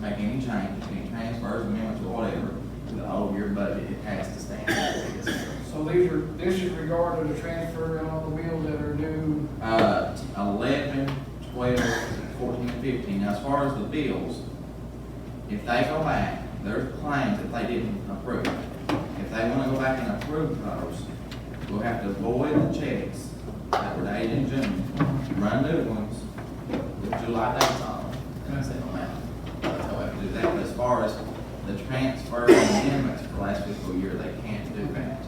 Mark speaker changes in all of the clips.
Speaker 1: change, any transfers, amendments, or whatever, to the whole year budget, it has to stand as is.
Speaker 2: So these are, this is regarding the transfer and all the bills that are due.
Speaker 1: Uh, eleven, twelve, fourteen, and fifteen, now as far as the bills, if they go back, there's claims that they didn't approve. If they wanna go back and approve those, we'll have to void the checks that were dated in June, run new ones with July dates on them, and send them out. That's how we have to do that, but as far as the transfer amendments for last fiscal year, they can't do that.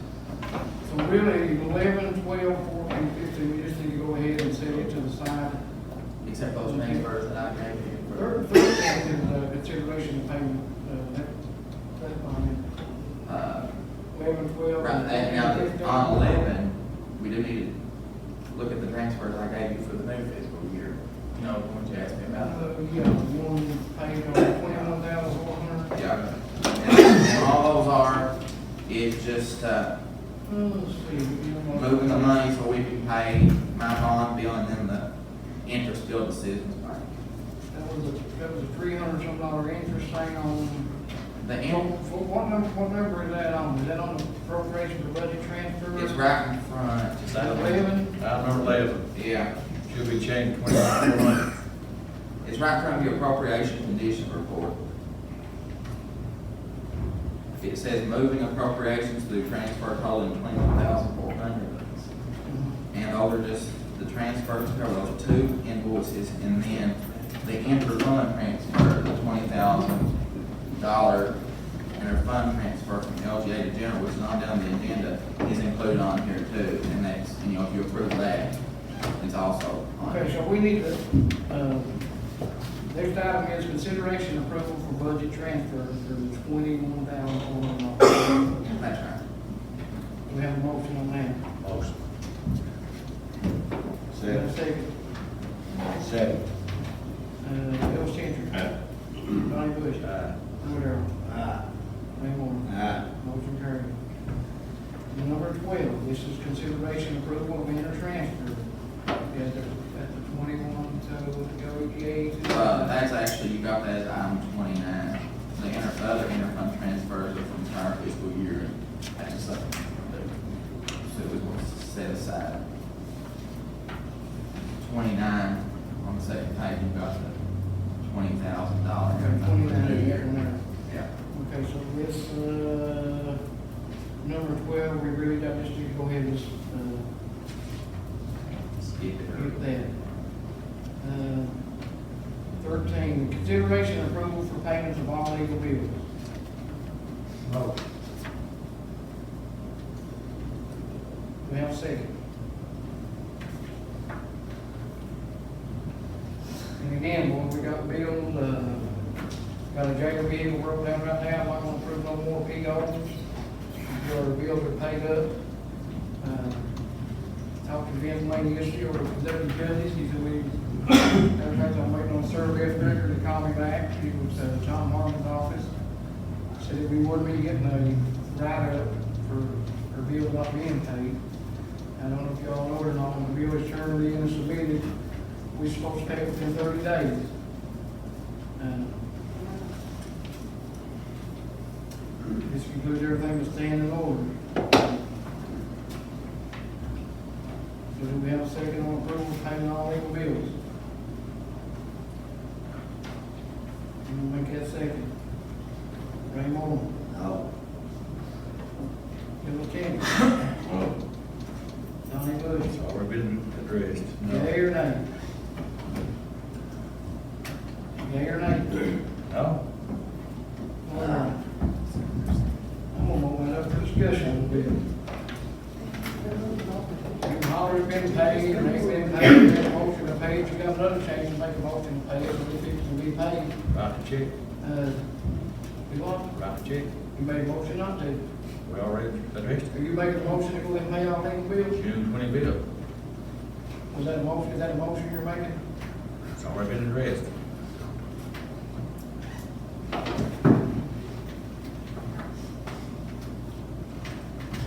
Speaker 2: So really, eleven, twelve, fourteen, fifteen, we just need to go ahead and set it to the side.
Speaker 1: Except those transfers that I gave you. for-
Speaker 2: Third, third thing is uh, consideration of payment, uh, that- that's fine.
Speaker 1: Uh,
Speaker 2: Eleven, twelve.
Speaker 1: Right, and now,
Speaker 2: 15.
Speaker 1: on eleven, we do need to look at the transfers I gave you for the new fiscal year. You know, the ones you asked me
Speaker 2: Uh,
Speaker 1: about.
Speaker 2: yeah, one paid on twenty-one thousand, one hundred.
Speaker 1: Yeah. And- And all those are, is just, uh,
Speaker 2: Let's see. we got one-
Speaker 1: moving the money so we can pay my bond bill and then the interest bill to Citizens Bank.
Speaker 2: That was a, that was a three hundred some dollar interest thing on,
Speaker 1: The
Speaker 2: what,
Speaker 1: in,
Speaker 2: what number, what number is that on? Is that on the appropriation for budget transfer?
Speaker 1: it's right in front.
Speaker 3: Is that
Speaker 2: Eleven,
Speaker 3: Item number eleven,
Speaker 1: Yeah,
Speaker 3: should be changed twenty-nine to one.
Speaker 1: it's right in front of your appropriation condition report. It says moving appropriations through transfer totaling twenty-one thousand four hundred. And those are just the transfers, there were those two invoices, and then the inter-fund transfer, the twenty thousand dollar inter-fund transfer from LGA to general, which is not down the agenda, is included on here too, and that's, you know, if you approve that, it's also on
Speaker 2: okay,
Speaker 1: here.
Speaker 2: so we need to, uh, next item is consideration and approval for budget transfer for the twenty-one thousand four hundred dollars.
Speaker 1: That's right.
Speaker 2: Do we have a motion on that?
Speaker 3: Motion.
Speaker 2: Do we have a
Speaker 3: Second.
Speaker 2: Second.
Speaker 3: Second.
Speaker 2: Uh, Bill Changer. Donnie Bush.
Speaker 3: Aye.
Speaker 2: Lou Darrell. Ray Moore.
Speaker 3: Aye.
Speaker 2: Motion carried. And Number twelve, this is consideration approval of inter transfer at the, at the twenty-one, so with the OEPA.
Speaker 1: Uh, that's actually, you got that as item twenty-nine, the inter, other inter-fund transfers are from prior fiscal year, and that's just something that, so we will set aside. Twenty-nine, on the second page, you got the twenty thousand dollar.
Speaker 2: Twenty-nine, is that one there.
Speaker 1: Yeah,
Speaker 2: Okay, so this, uh, number twelve, we really got just to go ahead and, uh,
Speaker 1: skip
Speaker 2: get
Speaker 1: it.
Speaker 2: that. Uh, Thirteen, consideration approval for payments of all legal bills.
Speaker 3: Motion.
Speaker 2: Do we have a second? And again, boy, we got bills, uh, got a jail bill broke down right now, I'm not gonna approve no more P O's. Your bills are paid up. Uh, Talked to Vince Lane yesterday, or Kentucky judges, he said we, everything's I'm waiting on survey of record to call me back, he was, uh, John Harmon's office. Said if we were to be getting a write-up for, for bills not being paid. I don't know if y'all know or not, when the bill is turned in and submitted, we supposed to pay it within thirty days. Uh, This concludes everything that's staying in order. So do we have a second on approval of paying all legal bills? You gonna make that second? Ray Moore,
Speaker 3: No.
Speaker 2: Bill King,
Speaker 3: Well,
Speaker 2: Donnie Bush.
Speaker 3: It's already been addressed.
Speaker 2: Yea or nay? Yea or nay?
Speaker 3: No?
Speaker 2: All right. I'm gonna open it up for discussion a little bit. You've already been paid, and they've been paid, you've been motion to pay, if you got another change, make a motion to pay, it, so we think it can be paid.
Speaker 3: Write the check,
Speaker 2: Uh, You want,
Speaker 3: write the check.
Speaker 2: you made a motion not to,
Speaker 3: We already addressed
Speaker 2: or you make a motion to go ahead and pay all them
Speaker 3: it.
Speaker 2: bills?
Speaker 3: June twenty bill,
Speaker 2: Was that a motion, is that a motion you're making?
Speaker 3: it's already been addressed.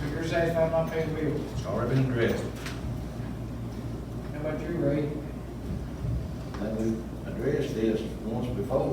Speaker 2: So you're satisfied not paying bills?
Speaker 3: It's already been addressed.
Speaker 2: How about you, Ray?
Speaker 4: And we addressed this once before,